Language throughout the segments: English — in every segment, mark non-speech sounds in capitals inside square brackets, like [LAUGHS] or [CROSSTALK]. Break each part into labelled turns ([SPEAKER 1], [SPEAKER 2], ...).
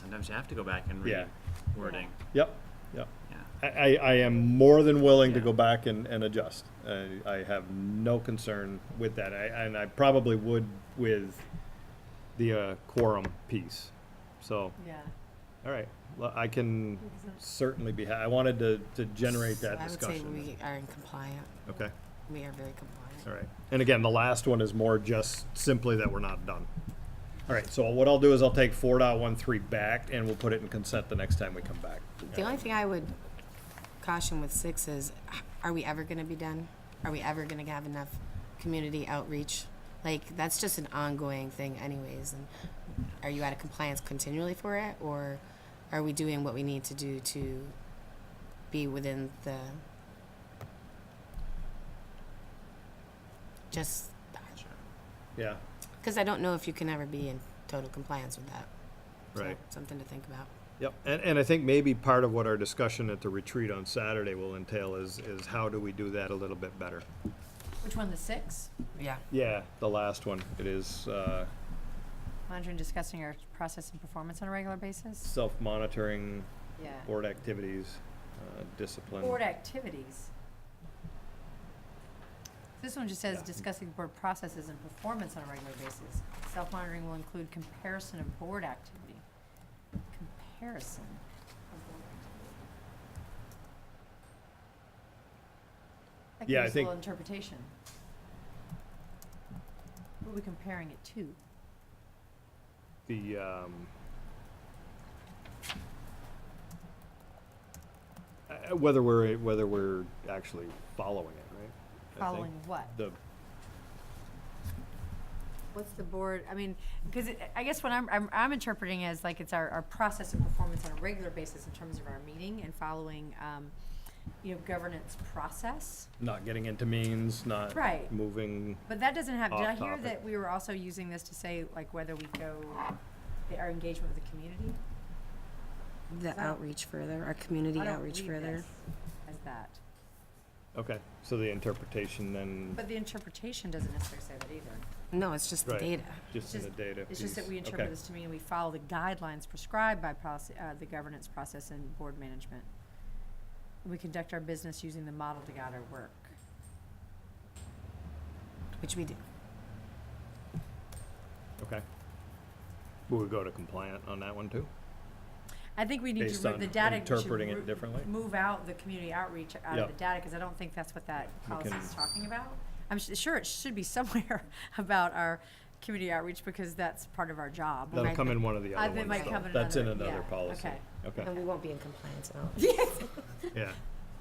[SPEAKER 1] sometimes you have to go back and read
[SPEAKER 2] Yeah.
[SPEAKER 1] wording.
[SPEAKER 2] Yep, yep.
[SPEAKER 1] Yeah.
[SPEAKER 2] I, I, I am more than willing to
[SPEAKER 1] Yeah.
[SPEAKER 2] go back and, and adjust. I, I have no concern with that, I, and I probably would with the uh, quorum piece. So,
[SPEAKER 3] Yeah.
[SPEAKER 2] all right, well, I can certainly be, ha- I wanted to, to generate that
[SPEAKER 3] I would say
[SPEAKER 2] discussion.
[SPEAKER 3] we are in compliant.
[SPEAKER 2] Okay,
[SPEAKER 3] We are very compliant.
[SPEAKER 2] all right. And again, the last one is more just simply that we're not done. All right, so what I'll do is I'll take four point one three back and we'll put it in consent the next time we come back.
[SPEAKER 3] The only thing I would caution with six is, h- are we ever gonna be done? Are we ever gonna have enough community outreach? Like, that's just an ongoing thing anyways, and are you out of compliance continually for it, or are we doing what we need to do to be within the just,
[SPEAKER 1] Sure.
[SPEAKER 2] Yeah,
[SPEAKER 3] because I don't know if you can ever be in total compliance with that. So,
[SPEAKER 2] right.
[SPEAKER 3] Something to think about.
[SPEAKER 2] Yep, and, and I think maybe part of what our discussion at the retreat on Saturday will entail is, is how do we do that a little bit better?
[SPEAKER 4] Which one, the six?
[SPEAKER 3] Yeah.
[SPEAKER 2] Yeah. The last one, it is, uh,
[SPEAKER 4] Monitoring, discussing our process and performance on a regular basis?
[SPEAKER 2] self-monitoring,
[SPEAKER 4] Yeah.
[SPEAKER 2] board activities, uh, discipline.
[SPEAKER 4] Board activities. This one just says
[SPEAKER 2] Yeah.
[SPEAKER 4] discussing board processes and performance on a regular basis. Self-monitoring will include comparison of board activity. Comparison of board activity. That
[SPEAKER 2] Yeah, I
[SPEAKER 4] gives a
[SPEAKER 2] think-
[SPEAKER 4] little interpretation. What are we comparing it to?
[SPEAKER 2] The, um, uh, whether we're, whether we're actually following it, right? I think
[SPEAKER 4] Following what?
[SPEAKER 2] The,
[SPEAKER 4] What's the board, I mean, because I guess what I'm, I'm, I'm interpreting as like it's our, our process and performance on a regular basis in terms of our meeting and following, um, you know, governance process.
[SPEAKER 2] not getting into means, not
[SPEAKER 4] Right.
[SPEAKER 2] moving,
[SPEAKER 4] But that doesn't have, did I
[SPEAKER 2] Off
[SPEAKER 4] hear
[SPEAKER 2] topic.
[SPEAKER 4] that we were also using this to say like whether we go, our engagement with the community?
[SPEAKER 3] The
[SPEAKER 4] Wow.
[SPEAKER 3] outreach further, our community
[SPEAKER 4] I don't
[SPEAKER 3] outreach
[SPEAKER 4] read
[SPEAKER 3] further.
[SPEAKER 4] this As that.
[SPEAKER 2] okay, so the interpretation then,
[SPEAKER 4] But the interpretation doesn't necessarily say that either.
[SPEAKER 3] No, it's just the
[SPEAKER 2] Right.
[SPEAKER 3] data.
[SPEAKER 2] just in the
[SPEAKER 4] just-
[SPEAKER 2] data
[SPEAKER 4] It's just that
[SPEAKER 2] piece.
[SPEAKER 4] we
[SPEAKER 2] Okay.
[SPEAKER 4] interpret this to mean we follow the guidelines prescribed by policy, uh, the governance process and board management. We conduct our business using the model to guide our work.
[SPEAKER 3] Which we do.
[SPEAKER 2] Okay. Will we go to compliant on that one too?
[SPEAKER 4] I think we need
[SPEAKER 2] Based
[SPEAKER 4] to,
[SPEAKER 2] on
[SPEAKER 4] re- the data. we should
[SPEAKER 2] interpreting it
[SPEAKER 4] re-
[SPEAKER 2] differently?
[SPEAKER 4] Move out the community outreach out of
[SPEAKER 2] Yep.
[SPEAKER 4] the data, cause I don't think that's what that
[SPEAKER 2] We
[SPEAKER 4] policy
[SPEAKER 2] can-
[SPEAKER 4] is talking about. I'm su- sure it should be [LAUGHS] somewhere about our community outreach, because that's part of our job.
[SPEAKER 2] That'll
[SPEAKER 3] might-
[SPEAKER 2] come in one of the
[SPEAKER 4] I-
[SPEAKER 2] other
[SPEAKER 4] it
[SPEAKER 2] ones.
[SPEAKER 4] might
[SPEAKER 2] though.
[SPEAKER 4] come in
[SPEAKER 2] That's in
[SPEAKER 4] another-
[SPEAKER 2] another
[SPEAKER 4] yeah,
[SPEAKER 2] policy.
[SPEAKER 4] okay. Um,
[SPEAKER 2] Okay,
[SPEAKER 3] And we won't be in compliance [LAUGHS] at all.
[SPEAKER 2] yeah.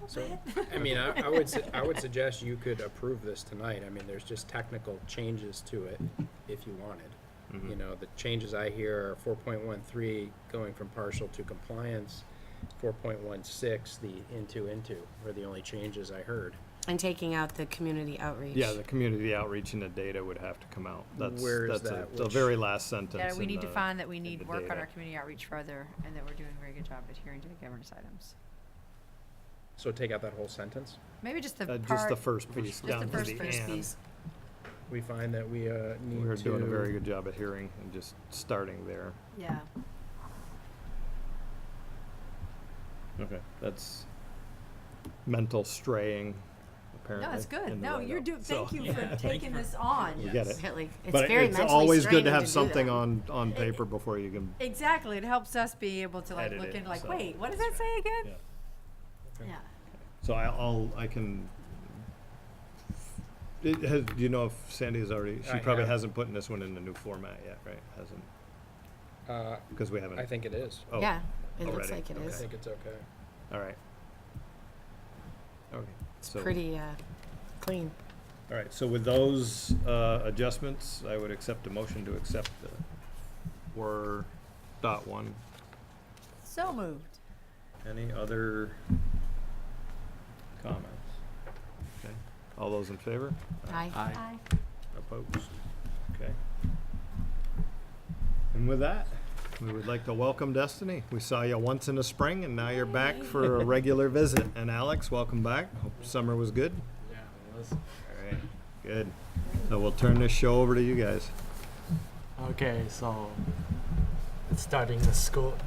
[SPEAKER 2] So,
[SPEAKER 5] I mean, I, I would, su- I would suggest you could approve this tonight. I mean, there's just technical changes to it if you wanted.
[SPEAKER 2] Mm-hmm.
[SPEAKER 5] You know, the changes I hear are four point one three going from partial to compliance, four point one six, the into into were the only changes I heard.
[SPEAKER 3] And taking out the community outreach.
[SPEAKER 2] yeah, the community outreach and the data would have to come out. That's,
[SPEAKER 5] Where is
[SPEAKER 2] that's a-
[SPEAKER 5] that?
[SPEAKER 2] the
[SPEAKER 5] Which-
[SPEAKER 2] very last sentence.
[SPEAKER 4] Yeah, we
[SPEAKER 2] in
[SPEAKER 4] need to
[SPEAKER 2] the-
[SPEAKER 4] find that we
[SPEAKER 2] the
[SPEAKER 4] need work on
[SPEAKER 2] data.
[SPEAKER 4] our community outreach further, and that we're doing a very good job adhering to the governance items.
[SPEAKER 5] So take out that whole sentence.
[SPEAKER 4] Maybe just the
[SPEAKER 2] uh,
[SPEAKER 4] part.
[SPEAKER 2] Just the first piece
[SPEAKER 4] just the
[SPEAKER 2] down to
[SPEAKER 4] first-
[SPEAKER 2] the
[SPEAKER 4] first
[SPEAKER 2] end.
[SPEAKER 5] We find that we, uh, need to.
[SPEAKER 2] We're doing a very good job of hearing and just starting there.
[SPEAKER 4] Yeah.
[SPEAKER 2] Okay. That's mental straying, apparently.
[SPEAKER 4] No, it's
[SPEAKER 2] in
[SPEAKER 4] good.
[SPEAKER 2] the
[SPEAKER 4] No, you're
[SPEAKER 2] write-up.
[SPEAKER 4] doing,
[SPEAKER 2] So- [LAUGHS]
[SPEAKER 4] thank you for taking this on.
[SPEAKER 2] We get it.
[SPEAKER 3] Really, it's
[SPEAKER 2] But
[SPEAKER 3] very
[SPEAKER 2] it's
[SPEAKER 3] mentally
[SPEAKER 2] always good
[SPEAKER 3] straining
[SPEAKER 2] to have
[SPEAKER 3] do
[SPEAKER 2] something
[SPEAKER 3] that.
[SPEAKER 2] on, on paper before you can,
[SPEAKER 4] Exactly. It helps us be able to like
[SPEAKER 2] Edit
[SPEAKER 4] look
[SPEAKER 2] it,
[SPEAKER 4] into like,
[SPEAKER 2] so-
[SPEAKER 4] wait, what does that say again?
[SPEAKER 5] Yeah.
[SPEAKER 4] Yeah.
[SPEAKER 2] so I- I'll, I can. It has, do you know if Sandy has already, she
[SPEAKER 5] I
[SPEAKER 2] probably
[SPEAKER 5] have.
[SPEAKER 2] hasn't put in this one in the new format yet, right? Hasn't,
[SPEAKER 5] Uh,
[SPEAKER 2] because we haven't.
[SPEAKER 5] I think it is.
[SPEAKER 2] oh,
[SPEAKER 3] Yeah, it looks
[SPEAKER 2] already.
[SPEAKER 3] like it
[SPEAKER 5] I
[SPEAKER 3] is.
[SPEAKER 5] think it's okay.
[SPEAKER 2] All right. Okay. so-
[SPEAKER 3] Pretty, uh, clean.
[SPEAKER 2] All right, so with those uh, adjustments, I would accept a motion to accept the four dot one.
[SPEAKER 4] So moved.
[SPEAKER 2] Any other comments? Okay, all those in favor?
[SPEAKER 3] Aye.
[SPEAKER 4] Aye.
[SPEAKER 2] Opposed? Okay. And with that, we would like to welcome Destiny. We saw you once in the spring and now you're back for a regular visit. And Alex, welcome back. Hope summer was good.
[SPEAKER 5] Yeah, it was.
[SPEAKER 2] All right, good. So we'll turn this show over to you guys.
[SPEAKER 6] Okay, so it's starting the school